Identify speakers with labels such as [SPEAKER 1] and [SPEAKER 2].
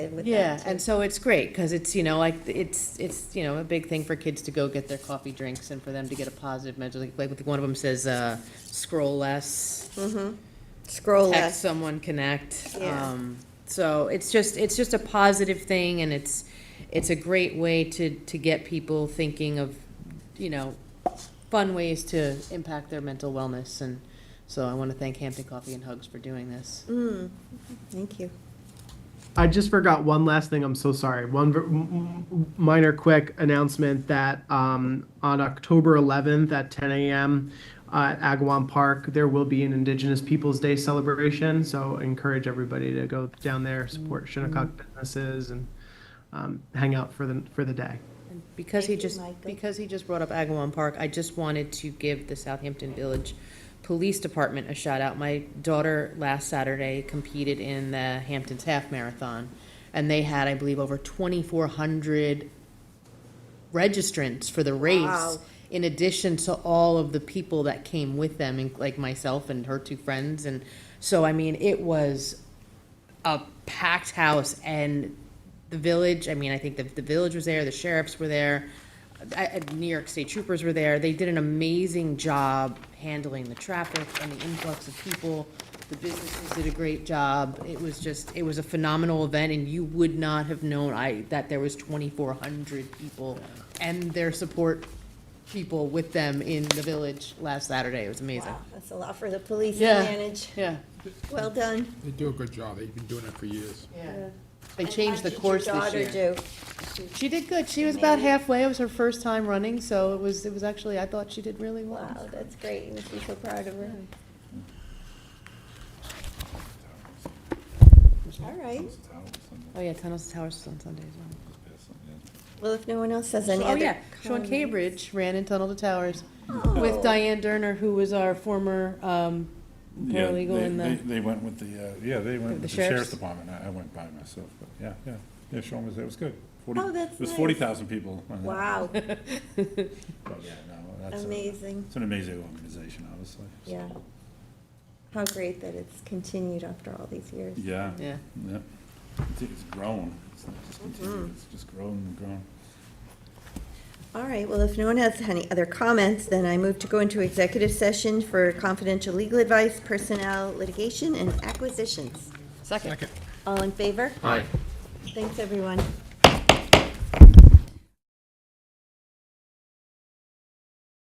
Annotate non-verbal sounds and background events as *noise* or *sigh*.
[SPEAKER 1] with that.
[SPEAKER 2] Yeah,
[SPEAKER 1] too.
[SPEAKER 2] and so it's great, because it's, you know, like, it's, it's, you know, a big thing for kids to go get their coffee drinks and for them to get a positive mental, like, like one of them says, uh, scroll less,
[SPEAKER 1] Scroll
[SPEAKER 2] text
[SPEAKER 1] less.
[SPEAKER 2] someone, connect.
[SPEAKER 1] Yeah.
[SPEAKER 2] Um, So it's just, it's just a positive thing, and it's, it's a great way to, to get people thinking of, you know, fun ways to impact their mental wellness, and so I want to thank Hampton Coffee and Hugs for doing this.
[SPEAKER 1] Mm, Thank you.
[SPEAKER 3] I just forgot one last thing. I'm so sorry. One v- m- m- minor quick announcement that um, on October 11th at 10 a.m. Uh, at Agawam Park, there will be an Indigenous Peoples Day celebration. So encourage everybody to go down there, support Shinnecock businesses, and um, hang out for the for the day.
[SPEAKER 2] Because he
[SPEAKER 1] Thank you,
[SPEAKER 2] just,
[SPEAKER 1] Michael.
[SPEAKER 2] because he just brought up Agawam Park, I just wanted to give the Southampton Village Police Department a shout out. My daughter last Saturday competed in the Hamptons Half Marathon, and they had, I believe, over twenty-four hundred registrants for the race.
[SPEAKER 1] Wow.
[SPEAKER 2] In addition to all of the people that came with them, and like myself and her two friends, and so, I mean, it was a packed house and the village, I mean, I think the, the village was there, the sheriffs were there, I, I- New York State troopers were there. They did an amazing job handling the traffic and the influx of people. The businesses did a great job. It was just, it was a phenomenal event and you would not have known I, that there was twenty-four hundred people and their support people with them in the village last Saturday. It was amazing.
[SPEAKER 1] Wow, that's a lot for the police to
[SPEAKER 2] Yeah.
[SPEAKER 1] manage.
[SPEAKER 2] Yeah.
[SPEAKER 1] Well done.
[SPEAKER 4] They do a good job. They've been doing it for years.
[SPEAKER 2] Yeah. They
[SPEAKER 1] And
[SPEAKER 2] changed
[SPEAKER 1] how
[SPEAKER 2] the
[SPEAKER 1] did your
[SPEAKER 2] course this
[SPEAKER 1] daughter
[SPEAKER 2] year.
[SPEAKER 1] do?
[SPEAKER 2] She did good. She was about halfway. It was her first time running, so it was, it was actually, I thought she did really well.
[SPEAKER 1] Wow, that's great. You must be so proud of her. All right.
[SPEAKER 2] Oh, yeah, Tunnels to Towers is on Sunday as well.
[SPEAKER 1] Well, if no one else has any
[SPEAKER 2] Oh,
[SPEAKER 1] other
[SPEAKER 2] yeah, Sean
[SPEAKER 1] comments-
[SPEAKER 2] Cambridge ran in Tunnel to Towers
[SPEAKER 1] Oh.
[SPEAKER 2] with Diane Derner, who was our former um,
[SPEAKER 5] Yeah,
[SPEAKER 2] paralegal
[SPEAKER 5] they-
[SPEAKER 2] in
[SPEAKER 5] They,
[SPEAKER 2] the,
[SPEAKER 5] they went with the, uh, yeah, they went with the
[SPEAKER 2] sheriff's?
[SPEAKER 5] sheriff's department, I, I went by myself, but yeah, yeah, yeah, Sean was there, it was good. 40
[SPEAKER 1] Oh, that's
[SPEAKER 5] It was
[SPEAKER 1] nice.
[SPEAKER 5] forty thousand people. on that.
[SPEAKER 1] Wow,
[SPEAKER 5] But yeah, no, that's a-
[SPEAKER 1] amazing.
[SPEAKER 5] It's an amazing organization, obviously. so-
[SPEAKER 1] Yeah. How great that it's continued after all these years.
[SPEAKER 5] Yeah,
[SPEAKER 2] *laughs* yeah.
[SPEAKER 5] yeah, it's, it's grown, it's not just
[SPEAKER 1] Mm-hmm.
[SPEAKER 5] continued, it's just grown and grown.
[SPEAKER 1] All right, well, if no one has any other comments, then I move to go into executive session for confidential legal advice, personnel, litigation, and acquisitions.
[SPEAKER 2] Second.
[SPEAKER 1] All in favor? Aye. Thanks, everyone.